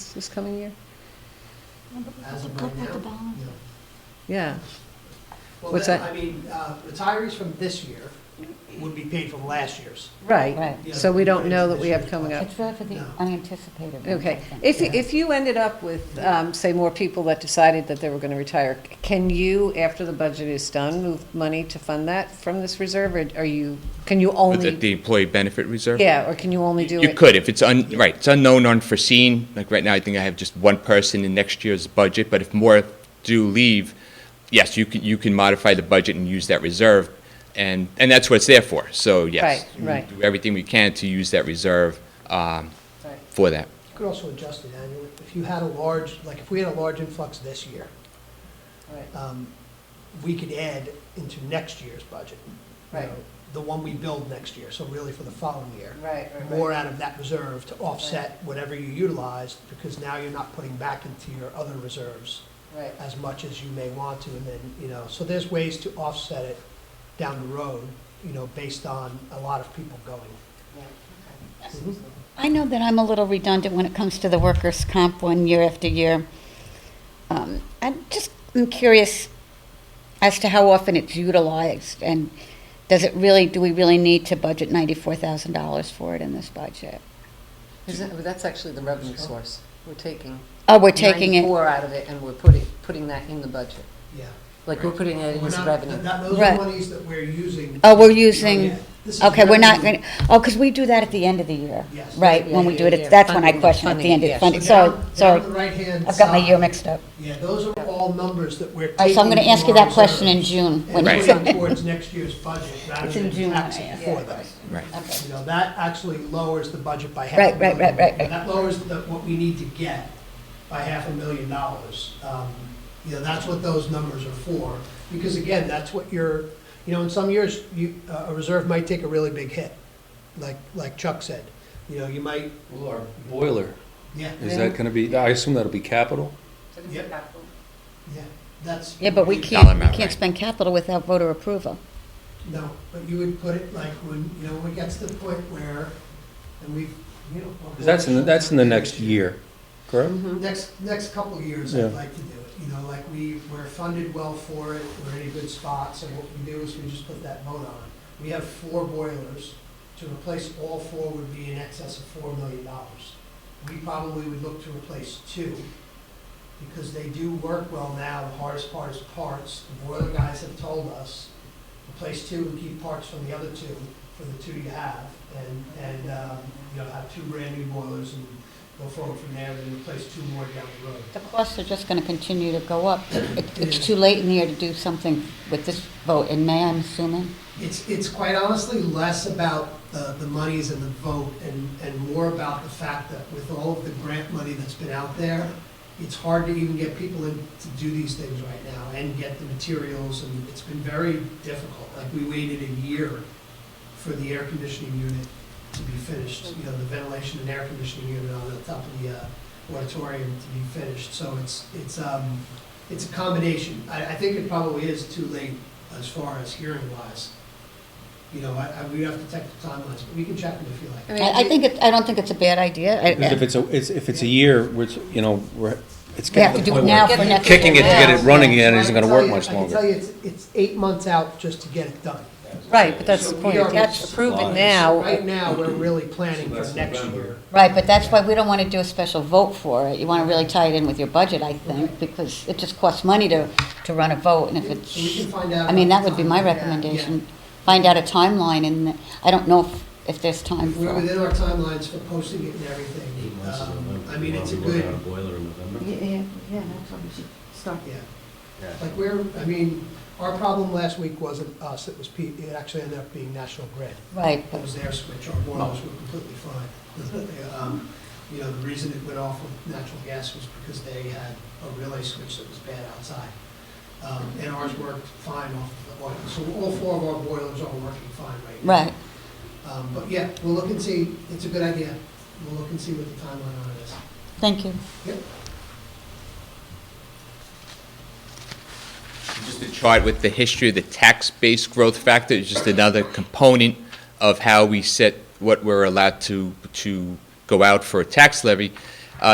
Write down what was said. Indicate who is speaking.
Speaker 1: balance this coming year?
Speaker 2: As of
Speaker 3: Up
Speaker 2: right
Speaker 3: with the
Speaker 2: now?
Speaker 3: balance.
Speaker 2: no.
Speaker 1: Yeah,
Speaker 2: Well,
Speaker 1: What's
Speaker 2: then,
Speaker 1: that?
Speaker 2: I mean, uh, retirees from this year would be paid from last year's.
Speaker 1: right.
Speaker 3: Right.
Speaker 1: So we don't know that we have coming up.
Speaker 3: It's really for the
Speaker 2: No.
Speaker 3: unanticipated. ones, I
Speaker 1: Okay.
Speaker 3: think.
Speaker 1: If,
Speaker 2: Yeah.
Speaker 1: if you ended up with, um, say, more people that decided that they were going to retire, c- can you, after the budget is done, move money to fund that from this reserve? Or are you, can you
Speaker 4: With the-
Speaker 1: only,
Speaker 4: the employee benefit reserve?
Speaker 1: yeah, or can you only do it?
Speaker 4: You could, if it's un, right, it's unknown, unforeseen, like right now, I think I have just one person in next year's budget, but if more do leave, yes, you can, you can modify the budget and use that reserve, and, and that's what it's there for, so yes.
Speaker 1: Right, right.
Speaker 4: we Do everything we can to use that reserve, um,
Speaker 1: Right.
Speaker 4: for that.
Speaker 2: You could also adjust it annually. If you had a large, like, if we had a large influx this year,
Speaker 1: Right.
Speaker 2: um, we could add into next year's budget. you
Speaker 1: Right.
Speaker 2: know, The one we build next year, so really for the following year.
Speaker 1: Right, right,
Speaker 2: More
Speaker 1: right.
Speaker 2: out of that reserve to offset whatever you utilized, because now you're not putting back into your other reserves
Speaker 1: Right.
Speaker 2: as much as you may want to, and then, you know, so there's ways to offset it down the road, you know, based on a lot of people going. Mhm.
Speaker 3: I know that I'm a little redundant when it comes to the workers' comp one year after year. Um, I'm just, I'm curious as to how often it's utilized, and does it really, do we really need to budget $94,000 for it in this budget?
Speaker 1: Isn't, well, that's actually the revenue source. We're taking.
Speaker 3: Oh, we're taking it,
Speaker 1: 94 out of it and we're putting, putting that in the budget.
Speaker 2: Yeah.
Speaker 1: Like, we're putting it in
Speaker 2: We're
Speaker 1: as
Speaker 2: not-
Speaker 1: revenue.
Speaker 2: that- Those are
Speaker 3: Right.
Speaker 2: monies that we're using.
Speaker 3: oh, we're using,
Speaker 2: This is
Speaker 3: okay, we're not
Speaker 2: revenue.
Speaker 3: going, to oh, because we do that at the end of the year,
Speaker 2: Yes.
Speaker 3: right?
Speaker 1: Yeah,
Speaker 3: When we
Speaker 1: yeah,
Speaker 3: do it,
Speaker 1: yeah,
Speaker 3: at- that's when I
Speaker 1: funding,
Speaker 3: question at the end of
Speaker 1: funding,
Speaker 3: the funding,
Speaker 1: yes.
Speaker 3: so,
Speaker 2: down- down the
Speaker 3: so
Speaker 2: right-hand
Speaker 3: I've got my year
Speaker 2: side,
Speaker 3: mixed up.
Speaker 2: Yeah, those are all numbers that we're
Speaker 3: All right,
Speaker 2: taking.
Speaker 3: Oh, so I'm going to ask you
Speaker 2: from our
Speaker 3: that question in
Speaker 2: reserves
Speaker 3: June.
Speaker 2: and
Speaker 3: when it's-
Speaker 2: putting it towards next year's budget rather
Speaker 3: It's in
Speaker 2: than
Speaker 3: June,
Speaker 2: taxing
Speaker 3: yeah.
Speaker 2: for those.
Speaker 4: Right.
Speaker 3: Okay.
Speaker 2: You know, that actually lowers the budget by half. a
Speaker 3: Right, right, right,
Speaker 2: million.
Speaker 3: right, right.
Speaker 2: That lowers the, what we need to get by half a million dollars. Um, You know, that's what those numbers are for, because again, that's what you're, you know, in some years, you, uh, a reserve might take a really big hit, like, like Chuck said. You know, you might,
Speaker 5: Well, our boiler,
Speaker 2: yeah,
Speaker 5: is that gonna be, I assume that'll be capital?
Speaker 2: Yep. yeah, that's.
Speaker 3: Yeah, but we
Speaker 2: you-
Speaker 3: can't, we
Speaker 4: amount,
Speaker 3: can't
Speaker 4: right.
Speaker 3: spend capital without voter approval.
Speaker 2: No, but you would put it like when, you know, when it gets to the point where, and we've, you know.
Speaker 5: 'Cause that's in, the- that's in the next year, correct?
Speaker 1: Mm-hmm.
Speaker 2: Next, next couple of years,
Speaker 5: Yeah.
Speaker 2: I'd like to do it, you know, like we, we're funded well for it, we're in good spots, and what we do is we just put that vote on. We have four boilers, to replace all four would be in excess of four million dollars. We probably would look to replace two, because they do work well now, the hardest part is parts. The boiler guys have told us, replace two and keep parts from the other two, for the two you have, and, and, um, you know, have two brand new boilers and go forward from there and replace two more down the road.
Speaker 3: The costs are just gonna continue to go up. It- It's too late in the year to do something with this vote in May, I'm assuming.
Speaker 2: It's, it's quite honestly less about the, the monies and the vote and, and more about the fact that with all of the grant money that's been out there, it's hard to even get people in to do these things right now and get the materials and it's been very difficult. Like we waited a year for the air conditioning unit to be finished, you know, the ventilation and air conditioning unit on the top of the uh, auditorium to be finished. So it's, it's, um, it's a combination. I, I think it probably is too late as far as hearing wise. You know, I, I, we'd have to check the timelines, but we can check them if you like.
Speaker 3: I, I think it, I don't think it's a bad idea. I-
Speaker 5: Because if it's a, it's, if it's a year, which, you know, we're, it's
Speaker 3: We have
Speaker 5: getting
Speaker 3: to
Speaker 5: to the
Speaker 3: do it
Speaker 5: point
Speaker 3: now
Speaker 5: where
Speaker 3: for next year.
Speaker 5: kicking it to get it running again isn't gonna work much
Speaker 2: I can tell
Speaker 5: longer.
Speaker 2: you, it's, it's eight months out just to get it done.
Speaker 1: Right, but that's the
Speaker 2: So we
Speaker 1: point.
Speaker 2: are-
Speaker 1: That's approve it
Speaker 5: Lies.
Speaker 1: now.
Speaker 2: Right now, we're really planning for next year.
Speaker 3: Right, but that's why we don't wanna do a special vote for it. You wanna really tie it in with your budget, I think, because it just costs money to, to run a vote, and if
Speaker 2: So we can
Speaker 3: it's,
Speaker 2: find out.
Speaker 3: I mean, that
Speaker 2: about
Speaker 3: would be
Speaker 2: the
Speaker 3: my
Speaker 2: timeline. Yeah.
Speaker 3: recommendation. Find out a timeline, and I don't know if, if there's time
Speaker 2: We're
Speaker 3: for.
Speaker 2: within our timelines for posting it and everything. Um, I mean, it's a good,
Speaker 6: a boiler in November.
Speaker 3: yeah, yeah, that's when we should start.
Speaker 2: yeah. Like we're, I mean, our problem last week wasn't us, it was, P- it actually ended up being National Grid.
Speaker 3: Right,
Speaker 2: It was their switch, Oh. our boilers were completely fine. Um, You know, the reason it went off with natural gas was because they had a relay switch that was bad outside. Um, And ours worked fine off the oil. So all four of our boilers are working fine right now.
Speaker 3: right.
Speaker 2: Um, But yeah, we'll look and see, it's a good idea. We'll look and see what the timeline on it is.
Speaker 3: Thank you.
Speaker 2: Yep.
Speaker 4: Just a chart with the history of the tax-based growth factor is just another component of how we set what we're allowed to, to go out for a tax levy. Uh,